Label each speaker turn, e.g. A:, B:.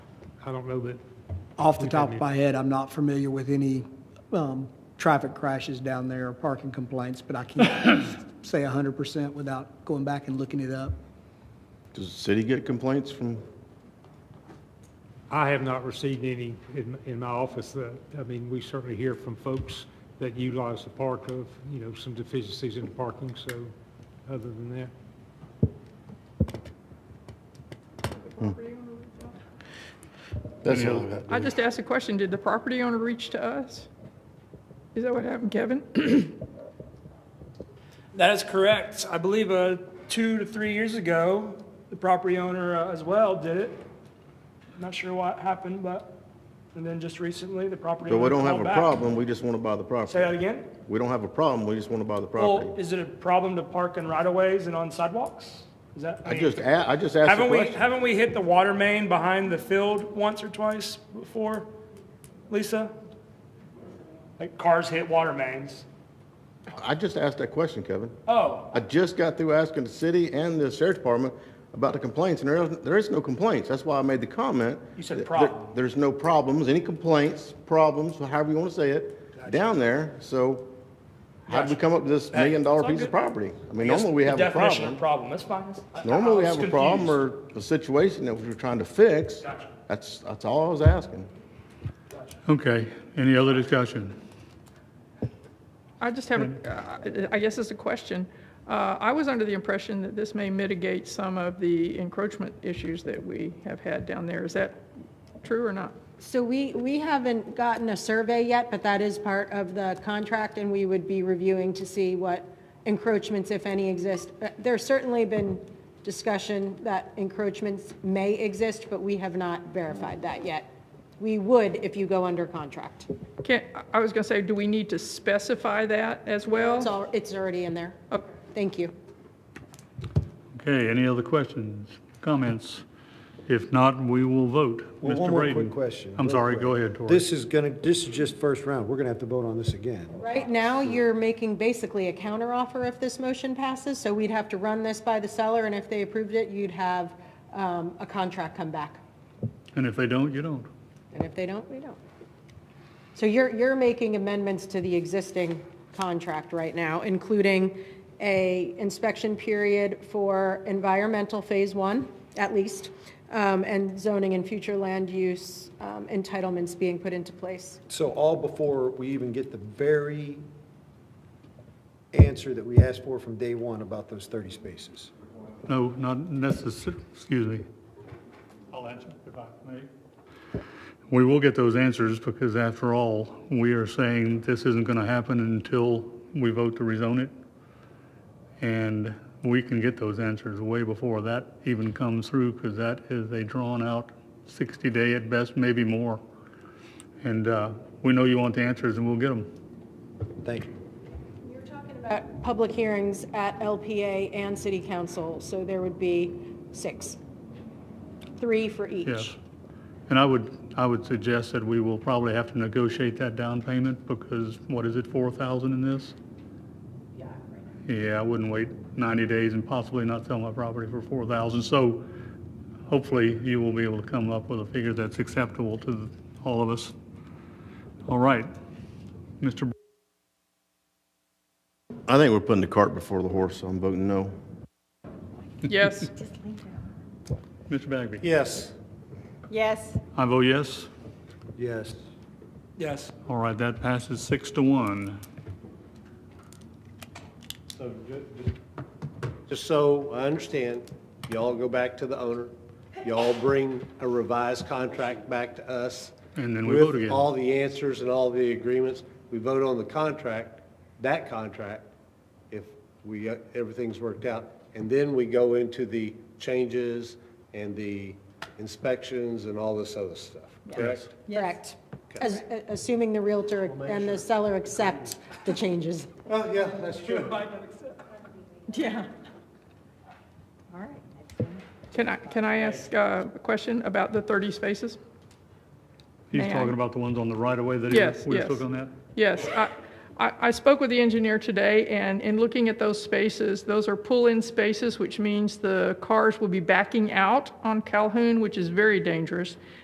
A: I don't know that,
B: Off the
A: We
B: top
A: can-
B: of my head, I'm not familiar with any um, traffic crashes down there or parking complaints, but I can't say 100% without going back and looking it up.
C: Does the city get complaints from,
A: I have not received any in, in my office that, I mean, we certainly hear from folks that utilize the park of, you know, some deficiencies in parking, so other than that.
C: that's all I got.
D: I just asked a question, did the property owner reach to us? Is that what happened, Kevin?
E: That is correct. I believe uh, two to three years ago, the property owner uh, as well did it. Not sure what happened, but, and then just recently, the property
C: So
E: owner
C: we don't have
E: called
C: a
E: back.
C: problem, we just want to buy the
E: Say that
C: property.
E: again?
C: We don't have a problem, we just want to buy the
E: Well,
C: property.
E: is it a problem to park in right-of-ways and on sidewalks? Is that?
C: I
E: mean,
C: just, a- I just asked a
E: Haven't we,
C: question.
E: haven't we hit the water main behind the field once or twice before, Lisa? Like cars hit water mains.
C: I just asked that question, Kevin.
E: Oh,
C: I just got through asking the city and the sheriff's department about the complaints, and there, is- there is no complaints. That's why I made the comment.
E: You said
C: that
E: problem.
C: there- There's no problems, any complaints, problems, however you want to say it, down there. So how'd we
E: Gotcha.
C: come up with this million-dollar
E: It's all
C: piece of
E: good.
C: property? I mean, normally we have a
E: Definition
C: problem.
E: of problem, that's fine. That's- I- I- I
C: Normally we
E: was
C: have a problem
E: confused.
C: or a situation that we're trying to fix.
E: Gotcha.
C: That's, that's all I was asking.
F: Okay, any other discussion?
D: I just have, a- uh, I I guess it's a question. Uh, I was under the impression that this may mitigate some of the encroachment issues that we have had down there. Is that true or not?
G: So we, we haven't gotten a survey yet, but that is part of the contract, and we would be reviewing to see what encroachments, if any, exist. Uh, There's certainly been discussion that encroachments may exist, but we have not verified that yet. We would if you go under contract.
D: Can't, I- I was going to say, do we need to specify that as
G: It's
D: well?
G: all, it's already in there.
D: Oh,
G: Thank you.
F: Okay, any other questions, comments? If not, we will vote.
H: Well,
F: Mr.
H: one more
F: Braden.
H: quick question.
F: I'm
H: real
F: sorry,
H: quick.
F: go ahead, Tori.
H: This is gonna, this is just first round. We're gonna have to vote on this again.
G: Right now, you're making basically a counteroffer if this motion passes, so we'd have to run this by the seller, and if they approved it, you'd have um, a contract come back.
F: And if they don't, you don't.
G: And if they don't, we don't. So you're, you're making amendments to the existing contract right now, including a inspection period for environmental phase one, at least, um, and zoning and future land use um, entitlements being put into place.
H: So all before we even get the very answer that we asked for from day one about those 30 spaces.
F: No, not necessar, excuse me. I'll answer if I may. We will get those answers because after all, we are saying this isn't going to happen until we vote to rezone it. And we can get those answers way before that even comes through because that is a drawn-out 60-day at best, maybe more. And uh, we know you want the answers and we'll get them.
H: Thank you.
G: You're talking about Uh, public hearings at LPA and city council, so there would be six. Three for each.
F: Yes. And I would, I would suggest that we will probably have to negotiate that down payment because what is it, 4,000 in this? Yeah, I wouldn't wait 90 days and possibly not sell my property for 4,000. So hopefully you will be able to come up with a figure that's acceptable to the- all of us. All right. Mr. Br-
C: I think we're putting the cart before the horse, so I'm voting no.
D: Yes,
F: Mr. Bagby?
H: Yes.
I: Yes.
F: I vote yes.
H: Yes.
E: Yes.
F: All right, that passes six to one.
J: So, ju- ju- Just so I understand, y'all go back to the owner, y'all bring a revised contract back to us.
F: And then we vote again.
J: With all the answers and all the agreements, we vote on the contract, that contract, if we, uh, everything's worked out. And then we go into the changes and the inspections and all this other stuff, correct?
G: Correct. As- Assuming the Realtor and the seller accept the changes.
J: Well, yeah, that's true.
I: Yeah.
D: can I, can I ask uh, a question about the 30 spaces?
F: He's
D: May I?
F: talking about the ones on the right of way that he-
D: Yes,
F: we
D: yes.
F: took on that?
D: Yes, I, I I spoke with the engineer today, and in looking at those spaces, those are pull-in spaces, which means the cars will be backing out on Calhoun, which is very dangerous.